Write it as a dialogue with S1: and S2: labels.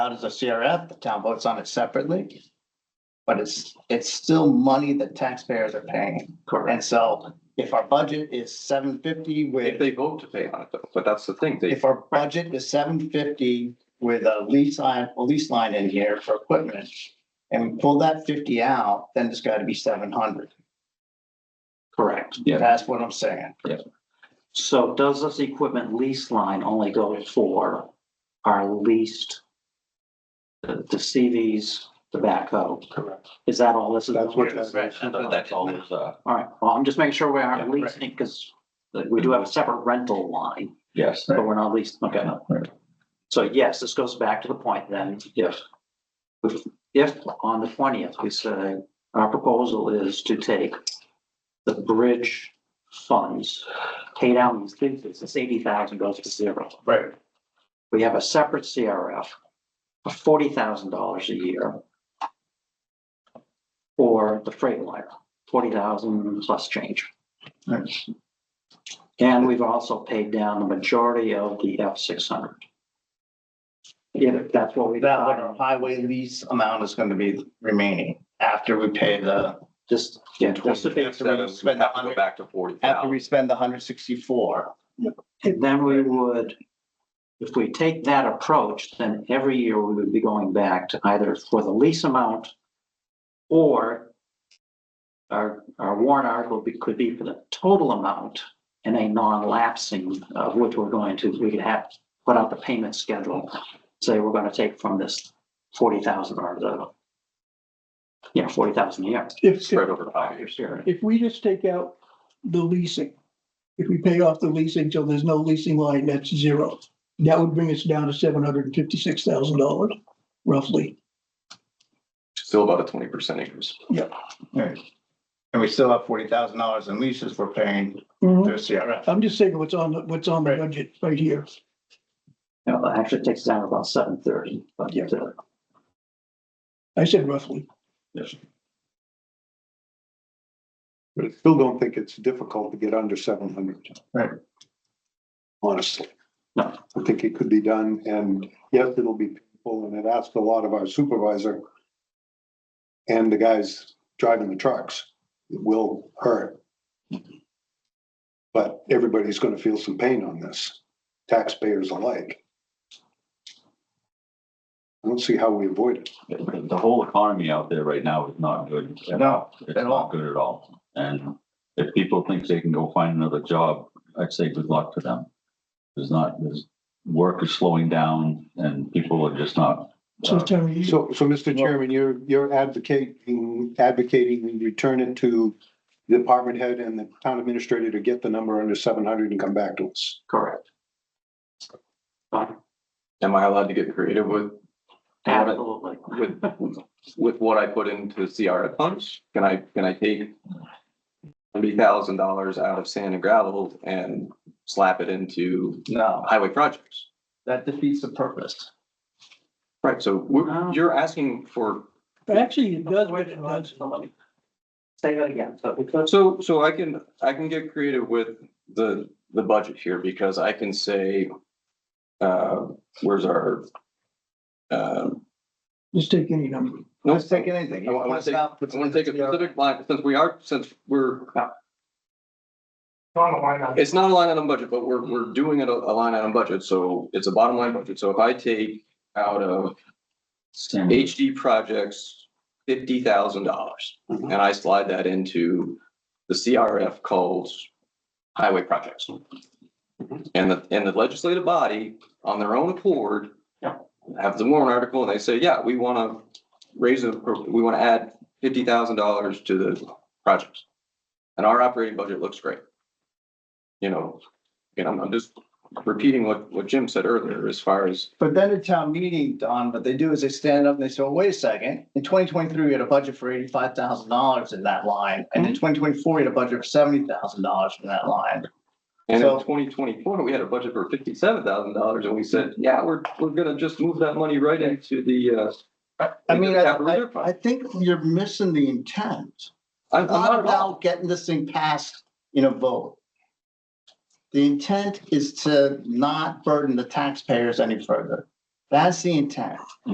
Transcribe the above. S1: out as a CRF, the town votes on it separately. But it's, it's still money that taxpayers are paying. And
S2: Correct.
S1: so if our budget is seven fifty
S2: If
S1: with,
S2: they vote to pay on it though, but that's the thing, they,
S1: if our budget is seven fifty with a lease line, a lease line in here for equipment. And we pull that fifty out, then it's gotta be seven hundred.
S3: Correct.
S2: yeah,
S1: That's what I'm saying.
S3: So does this equipment lease line only go for our leased? The the CVs, the backhoe?
S4: Correct.
S3: Is that all this is?
S4: That's what that's.
S2: that's all is, uh,
S3: All right, well, I'm just making sure we
S2: Yeah,
S3: aren't
S2: right.
S3: leasing because we do have a separate rental line,
S2: yes,
S3: but we're not leasing, okay.
S2: Right.
S3: So yes, this goes back to the point then,
S2: yes,
S3: if on the twentieth, we say our proposal is to take the bridge funds, pay down these leases, this eighty thousand goes to zero.
S1: Right.
S3: We have a separate CRF of forty thousand dollars a year for the freight wire, forty thousand plus change.
S1: Right.
S3: And we've also paid down the majority of the F six hundred. If that's what we.
S1: That what our highway lease amount is gonna be remaining after we pay the,
S3: Just, yeah, just to be-
S1: after we
S2: we
S1: spend the
S2: have to go
S1: hundred,
S2: back to forty
S1: after
S2: thousand.
S1: we spend the hundred sixty-four.
S3: And then we would, if we take that approach, then every year we would be going back to either for the lease amount or our, our warrant article be- could be for the total amount and a non-lapsing of which we're going to, we could have, put out the payment schedule. Say we're gonna take from this forty thousand or the, yeah, forty thousand a year,
S5: If, if,
S2: Spread over five
S3: five
S2: years.
S3: years here.
S5: if we just take out the leasing, if we pay off the leasing till there's no leasing line, that's zero. That would bring us down to seven hundred and fifty-six thousand dollars roughly.
S2: Still about a twenty percent increase.
S1: Right. And we still have forty thousand dollars in leases we're paying through CRF.
S5: I'm just saying what's on, the what's on the
S1: Mm-hmm. Right.
S5: budget right here.
S3: You know, that actually takes down about seven thirty, but
S5: Yeah.
S3: uh,
S5: I said roughly.
S4: But I still don't think it's difficult to get under seven hundred.
S1: Right.
S4: Honestly.
S3: No.
S4: I think it could be done and yes, it'll be people and it asked a lot of our supervisor. And the guys driving the trucks It will hurt. But everybody's gonna feel some pain on this, taxpayers alike. I don't see how we avoid it.
S6: the the whole economy out there right now is not good.
S1: No,
S6: It's
S1: at all.
S6: not good at all. And if people think they can go find another job, I'd say good luck to them. There's not, there's, work is slowing down and people are just not.
S5: So
S6: uh,
S5: tell me,
S4: So, so Mr. Chairman, you're, you're advocating, advocating we return it to the department head and the town administrator to get the number under seven hundred and come back to us.
S3: correct. Fine.
S2: Am I allowed to get creative with,
S3: Absolutely.
S2: with, with what I put into CRF funds? Can I, can I take thirty thousand dollars out of sand and gravel and slap it into
S1: no,
S2: highway projects?
S1: that defeats the purpose.
S2: Right, so we're,
S1: Oh.
S3: No.
S2: you're asking for
S5: actually, it does, but it does.
S3: Say that again, so because.
S2: So, so I can, I can get creative with the, the budget here because I can say, uh, where's our, um,
S5: Just take any number.
S2: no,
S1: Let's take anything.
S2: I wa- I wanna take- I want to take a specific line, since we are, since we're,
S4: Not a line item.
S2: it's not a line item budget, but we're, we're doing it a, a line item budget, so it's a bottom line budget. So if I take out of
S6: standard.
S2: HD projects, fifty thousand dollars, and I slide that into the CRF called highway projects. And the, and the legislative body, on their own accord,
S3: Yeah.
S2: have the warrant article, and they say, yeah, we want to raise, the- we want to add fifty thousand dollars to the projects. And our operating budget looks great. You know, and I'm, I'm just repeating what, what Jim said earlier, as far as
S1: But then at town meeting, Don, what they do is they stand up and they say, well, wait a second, in twenty twenty-three, we had a budget for eighty-five thousand dollars in that line. And
S2: Hmm.
S1: in twenty twenty-four, we had a budget for seventy thousand dollars in that line.
S2: And in
S1: So-
S2: twenty twenty-four, we had a budget for fifty-seven thousand dollars and we said, yeah, we're, we're gonna just move that money right into the, uh.
S1: I mean, I,
S2: capital reserve
S1: I- I
S2: fund.
S1: think you're missing the intent.
S2: I'm, I'm
S1: not
S2: not at all,
S1: about getting this thing passed in a vote. The intent is to not burden the taxpayers any further. That's the intent.